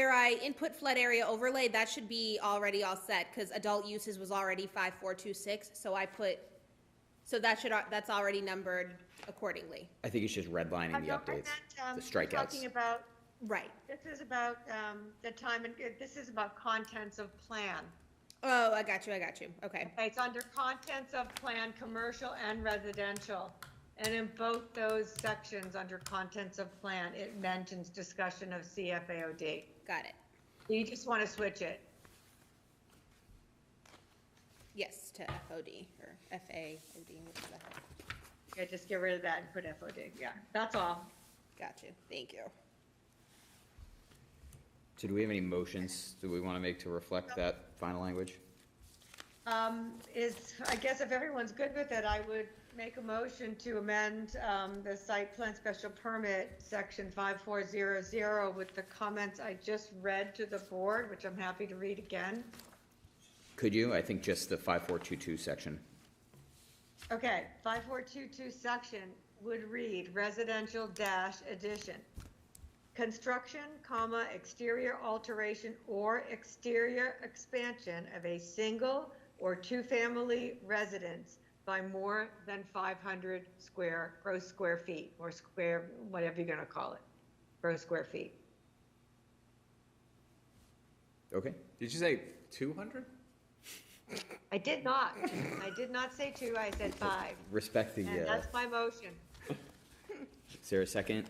right, input flood area overlay, that should be already all set, because adult uses was already five, four, two, six, so I put, so that should, al- that's already numbered accordingly. I think it's just redlining the No, I updates, meant, um, the Talking strikeouts. about, Right. this is about um, the time, and this is about contents of plan. Oh, I got you, I got you, okay. Okay, It's under contents of plan, commercial and residential. And in both those sections, under contents of plan, it mentions discussion of CFAOD. Got it. You just want to switch it. Yes, to FOD or FAOD. which is that? Yeah, just get rid of that and put FOD, yeah, that's all. Got you. Thank you. So do we have any motions do we want to make to reflect that final language? Um, is, I guess if everyone's good with it, I would make a motion to amend, um, the site plan special permit, section five four zero zero, with the comments I just read to the board, which I'm happy to read again. Could you? I think just the 5422 section. Okay, five four two two section would read residential dash addition. Construction, comma, exterior alteration or exterior expansion of a single or two-family residence by more than five hundred square, gross square feet, or square, whatever you're gonna call it, gross square feet. Okay, Did you say two hundred? I did not, I did not say two, I said five, respect the, and uh, that's my motion. is there a second?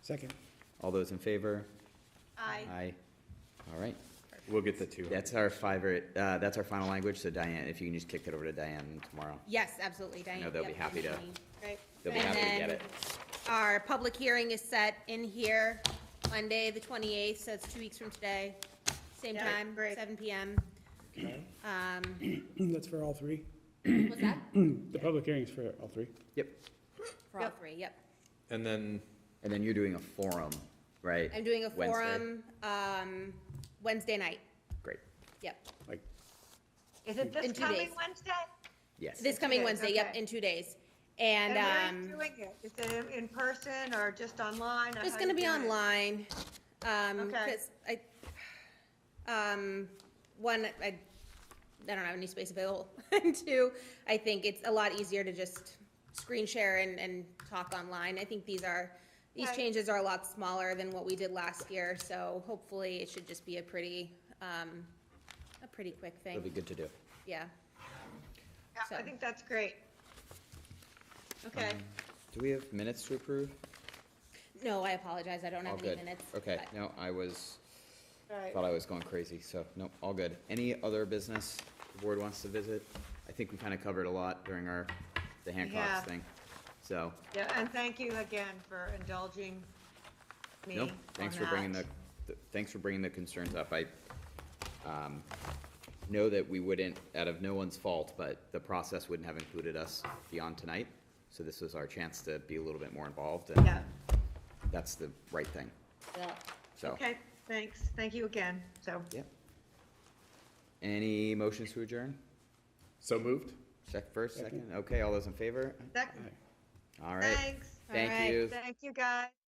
Second. All those in favor? I, Aye. All right, We'll get the two. that's our fiver, uh, that's our final language, so Diane, if you can just kick that over to Diane tomorrow. Yes, absolutely, Diane. know they'll be Yep, happy to- definitely. right, They'll be And happy to get then- it. Our public hearing is set in here Monday, the 28th, so it's two weeks from today. Same Yeah, time, great. 7 PM. Um, That's for all three. What's that? The public hearing's for all three. Yep, For all Yep. three, yep. And then, and then you're doing a forum, right? I'm doing a Wednesday? forum um, Wednesday night, Great, yep. Like, is it In this two coming days. Wednesday? yes. This coming days, Wednesday, yep, okay. in two days. And And where um, are you doing it? Is it in- in person or just online? or it's how gonna you be doing it? online. Um, Okay. 'cause I, um, one, I, I don't have any space available. And two, I think it's a lot easier to just screen share and, and talk online. I think these are, these Right. changes are a lot smaller than what we did last year, so hopefully it should just be a pretty, um, a pretty quick It'll be thing, good to do. yeah. Yeah, I so. think that's great. Um, Okay, Do we have minutes to approve? No, I apologize, I don't All have any good. minutes. Okay, but- no, I was, all right. thought I was going crazy, so, no, all good. Any other business the board wants to visit? I think we kind of covered a lot during our, the Yeah. Hancock's thing, so. Yeah, and thank you again for indulging me No, thanks for bringing on the, that. th- thanks for bringing the concerns up. I um, know that we wouldn't, out of no one's fault, but the process wouldn't have included us beyond tonight. So this was our chance to be a little bit more involved, and Yeah, that's the right thing, Yeah. so. okay, thanks. Thank you again, so. Yep. Any motions to adjourn? so moved? Check first, Second. second? Okay, all those in favor? that- All right. Thanks, All right. Thank you. thank you guys.